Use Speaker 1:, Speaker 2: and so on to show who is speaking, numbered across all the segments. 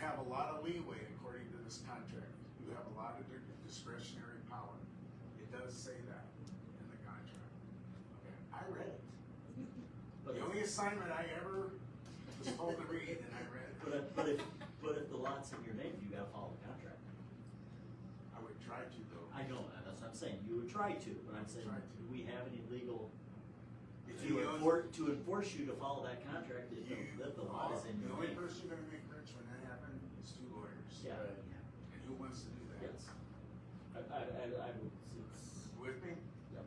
Speaker 1: have a lot of leeway according to this contract. You have a lot of discretionary power. It does say that in the contract. Okay, I read it. The
Speaker 2: But if-
Speaker 1: only assignment I ever was told to read and I read
Speaker 2: But
Speaker 1: it.
Speaker 2: if, but if, but if the lot's in your name, you gotta follow the contract.
Speaker 1: I would try to though.
Speaker 2: I know, that, that's what I'm saying, you would try to, but I'm saying,
Speaker 1: Try to.
Speaker 2: do we have any legal,
Speaker 1: If
Speaker 2: to
Speaker 1: you own-
Speaker 2: enforce, to enforce you to follow that contract, if
Speaker 1: You-
Speaker 2: the, if the lot is in
Speaker 1: The
Speaker 2: your
Speaker 1: only
Speaker 2: name?
Speaker 1: person gonna make rich when that happens is two lawyers.
Speaker 2: Yeah,
Speaker 1: And who wants to do that?
Speaker 2: yes. I, I, I, I would, it's,
Speaker 1: With me?
Speaker 2: yep.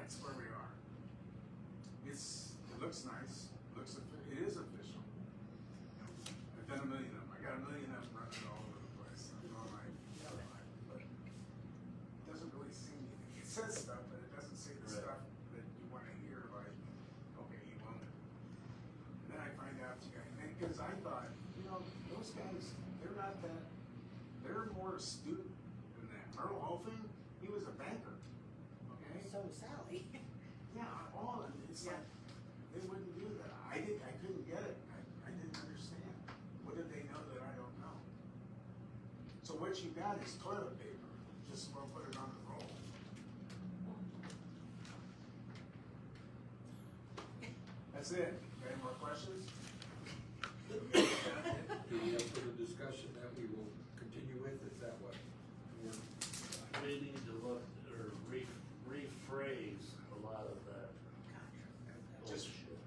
Speaker 1: That's where we are. It's, it looks nice, looks, offi- it is official. I've done a million of them, I got a million of them running all over the place, I'm all like, yeah, like, but it doesn't really seem, it says stuff, but it doesn't say the
Speaker 2: Right.
Speaker 1: stuff that you wanna hear, like, okay, you own it. And then I find out, you guys, and, cause I thought, you know, those guys, they're not that, they're more astute than that. Merle Hoffman, he was a banker, okay?
Speaker 3: So Sally.
Speaker 1: Yeah, all of it. It's like they wouldn't do that. I didn't. I couldn't get it. I, I didn't understand. What did they know that I don't know? So what you got is toilet paper. Just well, put it on the roll. That's it. Any more questions?
Speaker 4: Do we have further discussion that we will continue with, is that what? we're-
Speaker 5: We need to look, or re, rephrase a lot of that
Speaker 1: Just.
Speaker 5: bullshit.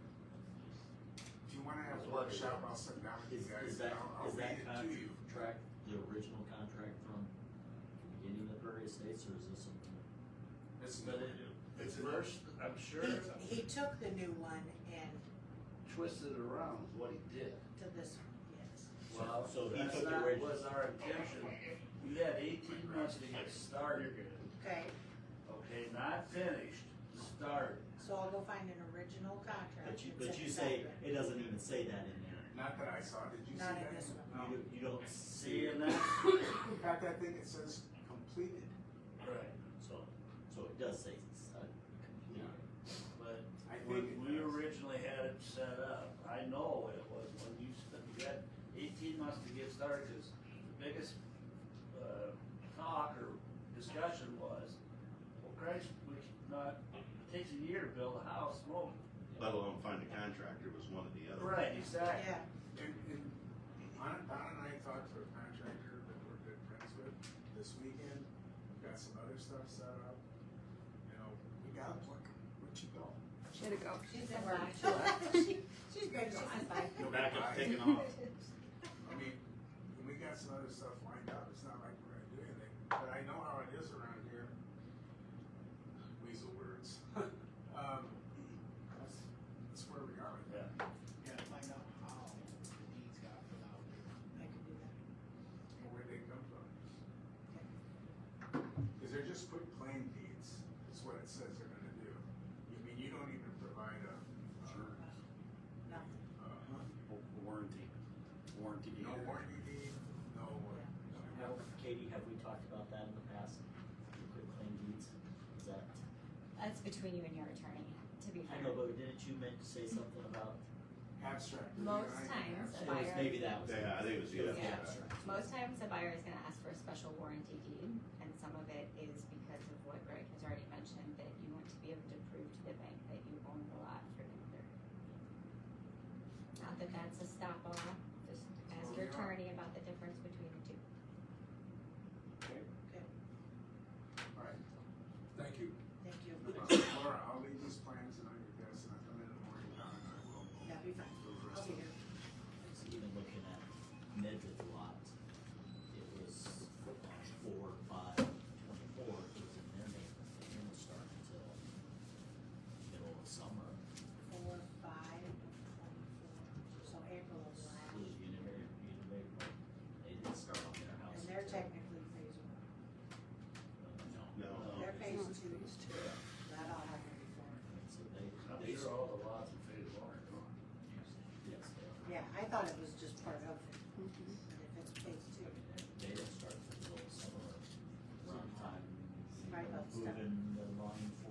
Speaker 1: If you want to have a workshop, I'll sit down with
Speaker 2: Is,
Speaker 1: you guys.
Speaker 2: is that,
Speaker 1: I'll, I'll
Speaker 2: is
Speaker 1: read
Speaker 2: that
Speaker 1: it to you.
Speaker 2: contract, the original contract from the beginning of the Prairie Estates, or is this something?
Speaker 1: It's
Speaker 5: But it, it's worse, I'm sure
Speaker 3: He, he took the new one and
Speaker 5: twisted around is what he did.
Speaker 3: to this one, yes.
Speaker 5: Well,
Speaker 2: So he
Speaker 5: that's
Speaker 2: took the
Speaker 5: not
Speaker 2: original-
Speaker 5: was our intention. You had eighteen months to get started,
Speaker 3: Okay,
Speaker 5: okay, not finished, started.
Speaker 3: so I'll go find an original contract.
Speaker 2: But you,
Speaker 3: and
Speaker 2: but
Speaker 3: send
Speaker 2: you
Speaker 3: it
Speaker 2: say,
Speaker 3: back.
Speaker 2: it doesn't even say that in there.
Speaker 1: Not that I saw. Did you
Speaker 3: Not
Speaker 1: see
Speaker 3: in
Speaker 1: that?
Speaker 3: this one.
Speaker 1: No.
Speaker 2: You, you don't see
Speaker 5: See,
Speaker 2: it,
Speaker 5: and that's,
Speaker 1: In fact, that thing that says completed.
Speaker 5: right.
Speaker 2: so, so it does say, uh, complete.
Speaker 5: But
Speaker 1: I
Speaker 5: when
Speaker 1: think it
Speaker 5: we
Speaker 1: does.
Speaker 5: originally had it set up, I know it was when you spent, you had eighteen months to get started, cause the biggest, uh, talk or discussion was, well, Christ, we should not, it takes a year to build a house, well,
Speaker 6: let alone find a contractor was one of the other.
Speaker 5: right, exactly.
Speaker 3: Yeah,
Speaker 1: And, and Don, Don and I talked to a contractor that we're good friends with this weekend. We got some other stuff set up. You know, we got a plan. Where'd you go?
Speaker 7: Way to go.
Speaker 3: Oh, she's in right. She- She's great, she's in right.
Speaker 1: You'll be
Speaker 6: Back
Speaker 1: fine.
Speaker 6: up, taking off.
Speaker 1: I mean, and we got some other stuff lined up. It's not like we're gonna do anything, but I know how it is around here. Weasel words. um, that's, that's where we are.
Speaker 5: Yeah.
Speaker 8: gotta find out how the deeds got put out.
Speaker 3: I can do that.
Speaker 1: and where they come from. Cause they're just quick claim deeds, is what it says they're gonna do. I mean, you don't even provide a, uh,
Speaker 3: No,
Speaker 1: uh,
Speaker 9: warranty, warranty.
Speaker 1: no
Speaker 9: either.
Speaker 1: warranty deed, no, uh,
Speaker 2: Have- Katie, have we talked about that in the past? The Quick claim deeds, is that,
Speaker 10: That's between you and your attorney, to be
Speaker 2: I
Speaker 10: fair.
Speaker 2: know, but didn't you meant to say something about,
Speaker 1: abstract.
Speaker 10: Most
Speaker 1: Yeah, I-
Speaker 2: it
Speaker 10: times, a
Speaker 1: abstract.
Speaker 2: was
Speaker 10: buyer.
Speaker 2: maybe that was.
Speaker 6: Yeah, I think it was the
Speaker 2: It
Speaker 6: other.
Speaker 2: was
Speaker 10: Yeah.
Speaker 2: abstract.
Speaker 10: Most times a buyer is gonna ask for a special warranty deed, and some of it is because of what Greg has already mentioned, that you want to be able to prove to the bank that you own the lot for another. Not that that's a stop all, just ask your
Speaker 1: Well, yeah.
Speaker 10: attorney about the difference between the two.
Speaker 1: Alright,
Speaker 4: Thank you.
Speaker 3: thank you.
Speaker 1: uh, Laura, I'll leave these plans and I can guess, and I come in the morning, Don, and I will.
Speaker 3: That'd be fine. I'll be here.
Speaker 2: So even looking at Ned's lot, it was um, four, five, twenty-four, it was in their name, it didn't start until middle of summer.
Speaker 3: Four, five, twenty-four, so April of
Speaker 2: So
Speaker 3: last.
Speaker 2: the Univary, Univary, they didn't start on their house.
Speaker 3: And they're
Speaker 2: until- uh,
Speaker 3: technically phase one.
Speaker 2: No.
Speaker 6: No.
Speaker 3: They're
Speaker 2: Okay,
Speaker 3: phase
Speaker 2: so-
Speaker 3: two,
Speaker 2: Yeah.
Speaker 3: that all happened before.
Speaker 2: So they,
Speaker 5: I'm
Speaker 2: they,
Speaker 5: sure all the lots in phase one are gone.
Speaker 2: yes, they are.
Speaker 3: Yeah, I thought it was just part of it, but if it's phase
Speaker 2: I
Speaker 3: two.
Speaker 2: mean, they- they don't start until middle of summer, around the time.
Speaker 3: Right, about stuff.
Speaker 2: Moving the line